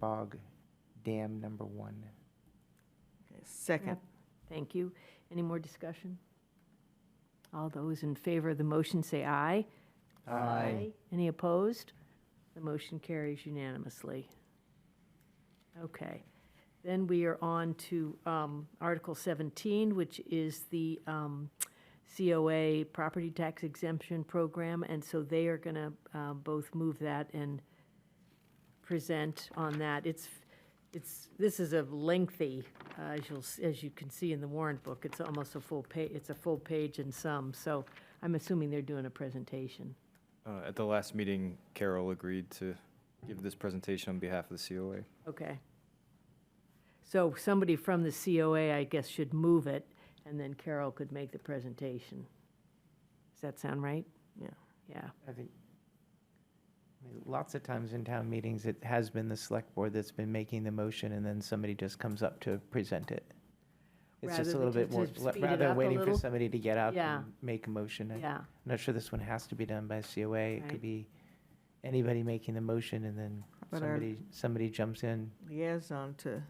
Bog Dam Number One. Second. Thank you. Any more discussion? All those in favor of the motion say aye. Um, Any opposed? The motion carries unanimously. Okay. Then we are on to um, Article 17, which is the um, COA Property Tax Exemption Program. And so they are going to both move that and present on that. It's, it's, this is a lengthy, uh, as you'll, s- as you can see in the warrant book, it's almost a full page. it's a full page and some. So I'm assuming they're doing a presentation. Uh, At the last meeting, Carol agreed to give this presentation on behalf of the COA. Okay. So somebody from the COA, I guess, should move it, and then Carol could make the presentation. Does that sound right? Yeah. Yeah, I think, I mean, lots of times in town meetings, it has been the select board that's been making the motion, and then somebody just comes up to present it. It's Rather just a than little bit to- more, to le- speed it rather up than a waiting for little. somebody to get up Yeah. and make a motion. I- yeah, I'm not sure this one has to be done by COA. It Right. could be anybody making the motion, and then But our- somebody, somebody jumps in. Liaison to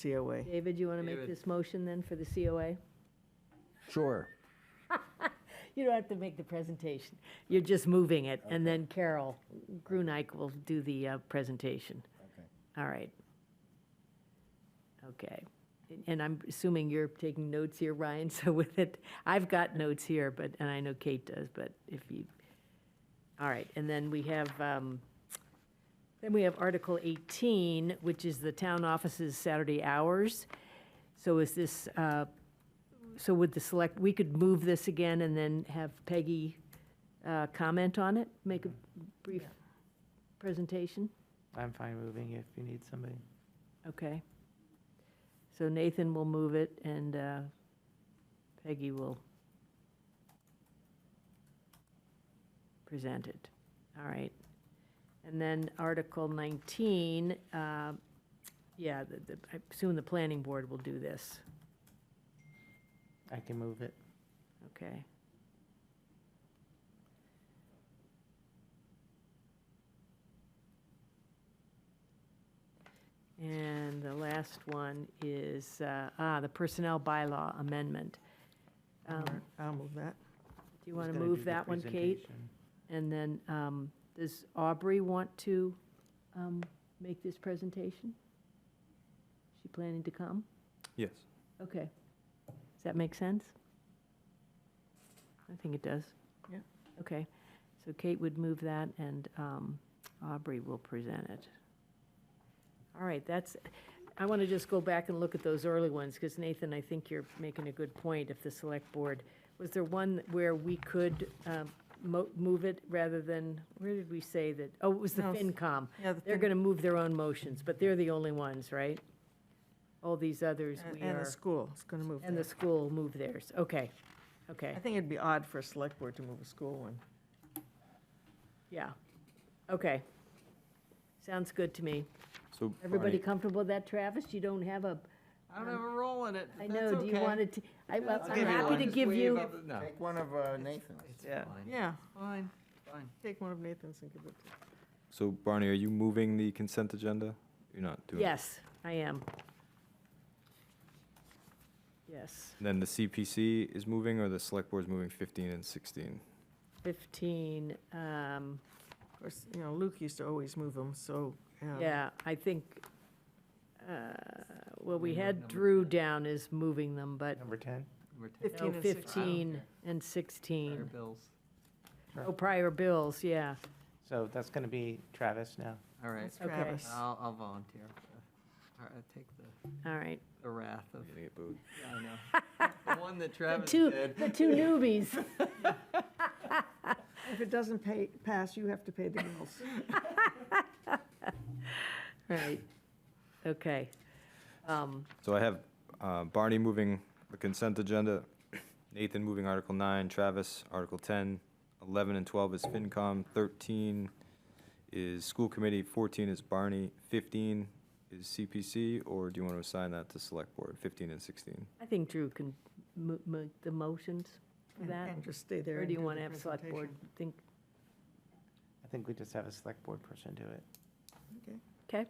to COA. David, you want to make David. this motion then for the COA? Sure. You don't have to make the presentation, you're just moving it, and then Carol Grunike will do the uh, presentation. Okay. All right. Okay, and I'm assuming you're taking notes here, Ryan, so with it, I've got notes here, but, and I know Kate does, but if you, all right, and then we have, um, then we have Article 18, which is the town offices Saturday hours. So is this, uh, so would the select, we could move this again and then have Peggy uh, comment on it, make a brief presentation? I'm fine moving if you need somebody. Okay. So Nathan will move it and uh, Peggy will present it. All right. And then Article 19, uh, yeah, the- the- I assume the planning board will do this. I can move it. Okay. And the last one is, uh, ah, the personnel bylaw amendment. Um, Do I'll move that. you Who's want to gonna do move the that one, Kate? presentation? And then, um, does Aubrey want to um, make this presentation? She planning to come? Yes. Okay. Does that make sense? I think it does. Yeah. Okay. So Kate would move that, and um, Aubrey will present it. All right, that's, I want to just go back and look at those early ones, because Nathan, I think you're making a good point, if the select board, was there one where we could um, mo- move it rather than, where did we say that? Oh, it was the No, s- FinCom. Yeah, the They're thing- going to move their own motions, but they're the only ones, right? All these others, and- we And the are, school is going to move and the that. school move theirs. Okay, okay, I think it'd be odd for a select board to move a school one. yeah, okay. Sounds good to me. So Everybody Barney, comfortable with that, Travis? You don't have a, I don't have a role in it. I know, do you want it to, I- well, I'm give you happy one. to give you, No. Take one of uh, Nathan's. Yeah. Yeah, Fine, fine. take one of Nathan's and give it to. So Barney, are you moving the consent agenda? You're not doing it? yes, I am. Yes, And Then the CPC is moving, or the select board's moving 15 and 16? 15, um, Of course, you know, Luke used to always move them, so. um, yeah, I think, uh, well, we Moving up had number Drew 10. down as moving them, but Number 10? Number 10. 15 no, and 16. 15 and Fire 16. bills. Oh, prior bills, yeah. So that's going to be Travis now. All right, That's Okay. Travis. I'll, I'll volunteer. All right, I'll take the, All right. the wrath of, I'm gonna get booed. yeah, I know. The one that The Travis two, did. the two newbies. If it doesn't pay, pass, you have to pay the bills. Right. Okay. Um, So I have uh, Barney moving the consent agenda, Nathan moving Article 9, Travis Article 10, 11 and 12 is FinCom, 13 is School Committee, 14 is Barney, 15 is CPC, or do you want to assign that to Select Board, 15 and 16? I think Drew can mo- make the motions for And- that. And just stay there. Or and do you the want to have select board presentation. think, I think we just have a select board person do it. okay?